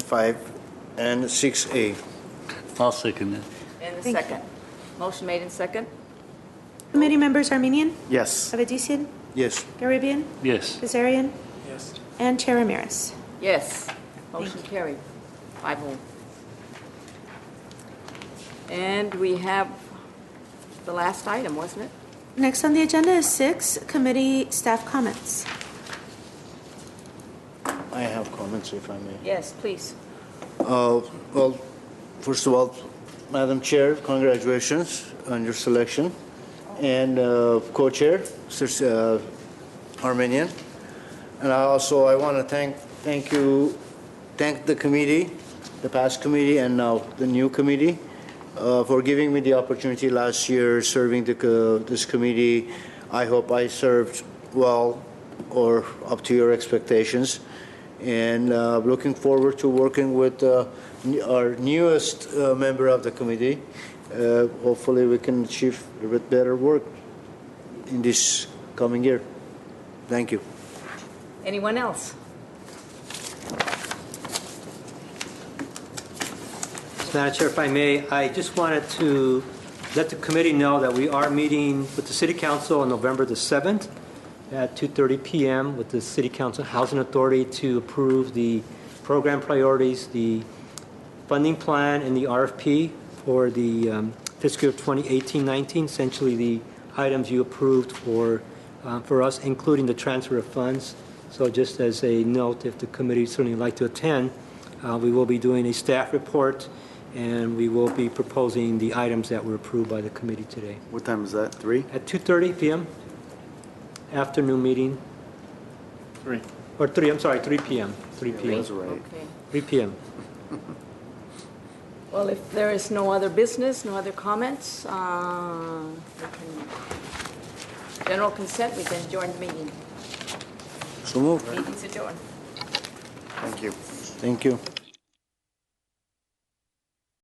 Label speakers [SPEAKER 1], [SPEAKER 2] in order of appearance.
[SPEAKER 1] 5, and 6A.
[SPEAKER 2] I'll second that.
[SPEAKER 3] And the
[SPEAKER 4] Thank you.
[SPEAKER 3] second. Motion made in second?
[SPEAKER 4] Committee members Armenian,
[SPEAKER 5] Yes.
[SPEAKER 4] Avedisian,
[SPEAKER 1] Yes.
[SPEAKER 4] Garibian,
[SPEAKER 2] Yes.
[SPEAKER 4] Kazarian,
[SPEAKER 5] Yes.
[SPEAKER 4] and Chair Ramirez.
[SPEAKER 3] Yes. Motion carried. Five oh. And we have the last item, wasn't it?
[SPEAKER 4] Next on the agenda is six, committee staff comments.
[SPEAKER 1] I have comments, if I may.
[SPEAKER 3] Yes, please.
[SPEAKER 1] Uh, Well, first of all, Madam Chair, congratulations on your selection, and uh, co-chair, Sis- uh, Armenian. And I also, I want to thank, thank you, thank the committee, the past committee and now the new committee, uh, for giving me the opportunity last year serving the co- this committee. I hope I served well or up to your expectations. And uh, looking forward to working with uh, n- our newest uh, member of the committee. Uh, Hopefully, we can achieve a bit better work in this coming year. Thank you.
[SPEAKER 3] Anyone else?
[SPEAKER 6] Madam Chair, if I may, I just wanted to let the committee know that we are meeting with the City Council on November the 7th at 2:30 PM with the City Council Housing Authority to approve the program priorities, the funding plan, and the RFP for the um, fiscal year 2018-19, essentially the items you approved for, uh, for us, including the transfer of funds. So just as a note, if the committee certainly would like to attend, uh, We will be doing a staff report, and we will be proposing the items that were approved by the committee today.
[SPEAKER 5] What time is that? Three?
[SPEAKER 6] At 2:30 PM, afternoon meeting,
[SPEAKER 5] Three.
[SPEAKER 6] or 3, I'm sorry, 3 PM, 3 PM,
[SPEAKER 5] That's right.
[SPEAKER 3] Okay.
[SPEAKER 6] 3 PM.
[SPEAKER 3] Well, if there is no other business, no other comments, uh, we can- general consent, we can adjourn the meeting.
[SPEAKER 1] So moved.
[SPEAKER 3] Meeting's adjourned.
[SPEAKER 5] Thank you.
[SPEAKER 1] Thank you.